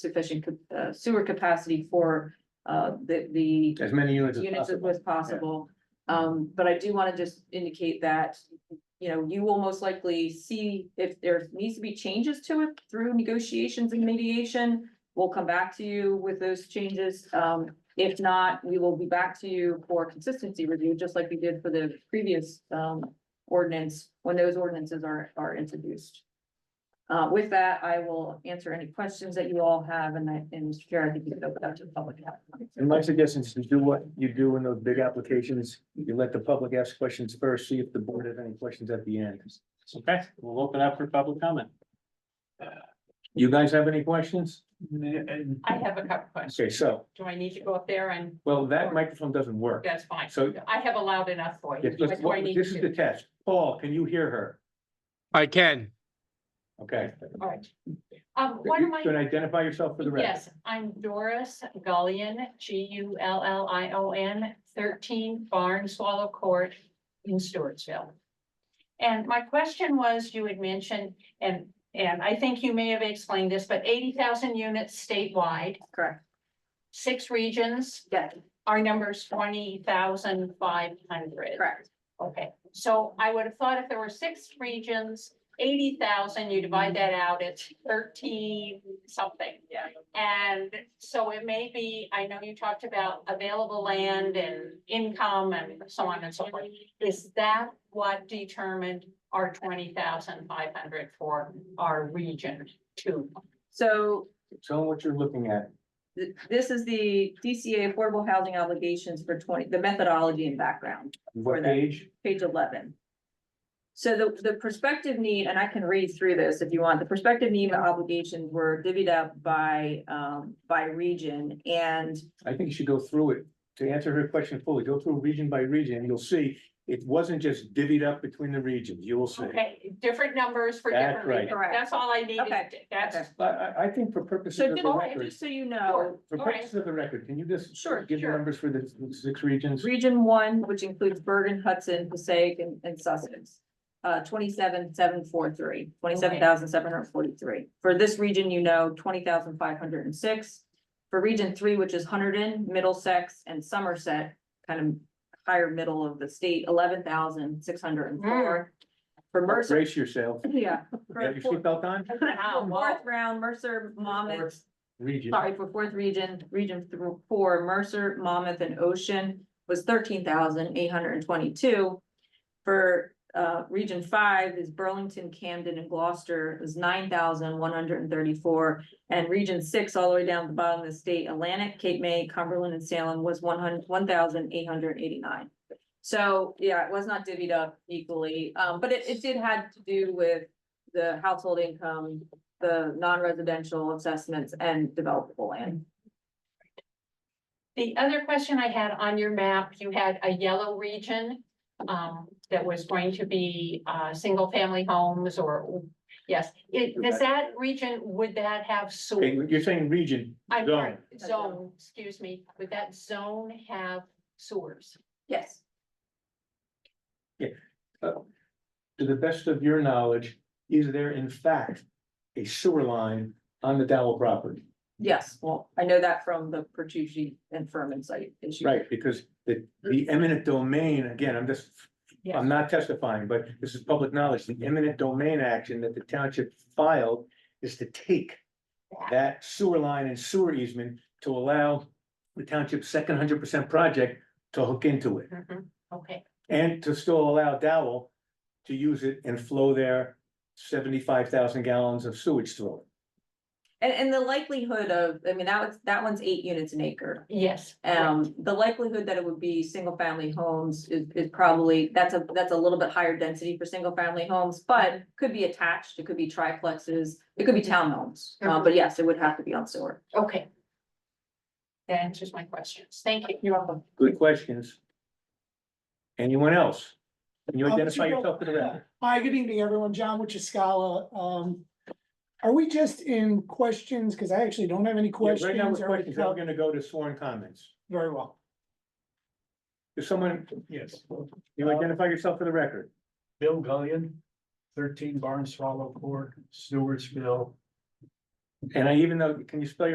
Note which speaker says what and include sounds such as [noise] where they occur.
Speaker 1: sufficient ca- uh, sewer capacity for uh, the, the
Speaker 2: as many units as
Speaker 1: units
Speaker 2: possible.
Speaker 1: as possible. Um, but I do wanna just indicate that, you know, you will most likely see if there needs to be changes to it through negotiations and mediation. We'll come back to you with those changes. Um, if not, we will be back to you for consistency review, just like we did for the previous, um, ordinance, when those ordinances are, are introduced. Uh, with that, I will answer any questions that you all have, and I, and Mr. Chair, I think you can open up to the public.
Speaker 2: And my suggestion is to do what you do in those big applications, you let the public ask questions first, see if the board has any questions at the end.
Speaker 3: Okay, we'll open up for public comment.
Speaker 2: You guys have any questions?
Speaker 4: I have a couple questions.
Speaker 2: Okay, so,
Speaker 4: Do I need to go up there and
Speaker 2: well, that microphone doesn't work.
Speaker 4: that's fine.
Speaker 2: So,
Speaker 4: I have a loud enough voice.
Speaker 2: if-
Speaker 4: What do I need
Speaker 2: this is
Speaker 4: to
Speaker 2: the
Speaker 4: do?
Speaker 2: test. Paul, can you hear her?
Speaker 5: I can.
Speaker 2: Okay.
Speaker 4: All right. Um, one of
Speaker 2: You
Speaker 4: my,
Speaker 2: can identify yourself for the record.
Speaker 4: yes, I'm Doris Gullion, G U L L I O N, thirteen Barn Swallow Court in Stewartsville. And my question was, you had mentioned, and, and I think you may have explained this, but eighty thousand units statewide,
Speaker 1: Correct,
Speaker 4: six regions,
Speaker 1: yeah,
Speaker 4: our number's twenty thousand five hundred.
Speaker 1: correct.
Speaker 4: Okay, so I would have thought if there were six regions, eighty thousand, you divide that out, it's thirteen something.
Speaker 1: Yeah.
Speaker 4: And so it may be, I know you talked about available land and income and so on and so forth. Is that what determined our twenty thousand five hundred for our region two?
Speaker 1: So
Speaker 2: Tell them what you're looking at.
Speaker 1: th- this is the DCA affordable housing obligations for twenty, the methodology and background,
Speaker 2: What
Speaker 1: For that.
Speaker 2: page?
Speaker 1: page eleven. So the, the prospective need, and I can read through this if you want, the prospective need and obligations were divvied up by, um, by region and
Speaker 2: I think you should go through it. To answer her question fully, go through region by region, and you'll see it wasn't just divvied up between the regions. You will see.
Speaker 4: Okay, different numbers for
Speaker 2: That's
Speaker 4: different
Speaker 2: right.
Speaker 4: regions.
Speaker 1: Correct.
Speaker 4: That's all I needed.
Speaker 1: Okay.
Speaker 4: That's,
Speaker 2: But I, I think for purposes
Speaker 1: so
Speaker 2: of the
Speaker 1: just,
Speaker 2: record.
Speaker 1: just so you
Speaker 4: Sure.
Speaker 1: know,
Speaker 2: For
Speaker 4: All right.
Speaker 2: purposes of the record, can you just?
Speaker 1: Sure,
Speaker 2: Give the
Speaker 4: sure.
Speaker 2: numbers for the six regions?
Speaker 1: region one, which includes Bergen, Hudson, Passaic and, and Sussex. Uh, twenty-seven, seven, four, three, twenty-seven thousand, seven hundred forty-three. For this region, you know, twenty thousand, five hundred and six. For region three, which is Hunterdon, Middlesex and Somerset, kind of higher middle of the state, eleven thousand, six hundred and four. For Mercer,
Speaker 2: Brace yourself.
Speaker 1: yeah. for
Speaker 2: Have your
Speaker 1: fourth-
Speaker 2: seatbelt on?
Speaker 4: [laughs]
Speaker 1: for
Speaker 4: wow, wow.
Speaker 1: Fourth round, Mercer, Monmouth,
Speaker 2: Region.
Speaker 1: sorry, for fourth region, region th- four, Mercer, Monmouth and Ocean was thirteen thousand eight hundred and twenty-two. For uh, region five is Burlington, Camden and Gloucester is nine thousand one hundred and thirty-four. And region six, all the way down to the bottom of the state, Atlantic, Cape May, Cumberland and Salem was one hundred, one thousand eight hundred and eighty-nine. So, yeah, it was not divvied up equally, um, but it, it did had to do with the household income, the non-residential assessments and developable land.
Speaker 4: The other question I had on your map, you had a yellow region um, that was going to be uh single family homes or yes, it does that region, would that have
Speaker 2: Okay,
Speaker 4: sewer?
Speaker 2: you're saying region,
Speaker 4: I'm sorry,
Speaker 2: zone.
Speaker 4: zone, excuse me, would that zone have sewers?
Speaker 1: Yes.
Speaker 2: To the best of your knowledge, is there in fact a sewer line on the Dowell property?
Speaker 1: Yes, well, I know that from the Pertucci and Furman site issue.
Speaker 2: Right, because the, the eminent domain, again, I'm just, I'm not testifying, but this is public knowledge. The eminent domain action that the township filed is to take that sewer line and sewer easement to allow the township's second hundred percent project to hook into it.
Speaker 4: Mhm, Okay,
Speaker 2: And to still allow Dowell to use it and flow their seventy-five thousand gallons of sewage through it.
Speaker 1: And, and the likelihood of, I mean, that was, that one's eight units an acre.
Speaker 4: yes.
Speaker 1: Um, the likelihood that it would be single family homes is, is probably, that's a, that's a little bit higher density for single family homes, but could be attached, it could be triplexes, it could be townhomes. Uh, but yes, it would have to be on sewer.
Speaker 4: correct. Okay. That answers my questions. Thank you.
Speaker 1: You're welcome.
Speaker 2: Good questions. Anyone else? Can you
Speaker 6: Uh, Mr.
Speaker 2: identify
Speaker 6: Bill.
Speaker 2: yourself for the record?
Speaker 6: Hi, good evening, everyone. John Wuchaskala. Um, are we just in questions? Because I actually don't have any
Speaker 2: Yeah, Right now,
Speaker 6: questions.
Speaker 2: with
Speaker 6: Are we
Speaker 2: questions, we're
Speaker 6: co-
Speaker 2: gonna go to sworn comments.
Speaker 6: Very well.
Speaker 2: If someone,
Speaker 7: Yes,
Speaker 2: you identify yourself for the record.
Speaker 7: Bill Gullion, thirteen Barn Swallow Court, Stewartsville,
Speaker 2: And I even though, can you spell your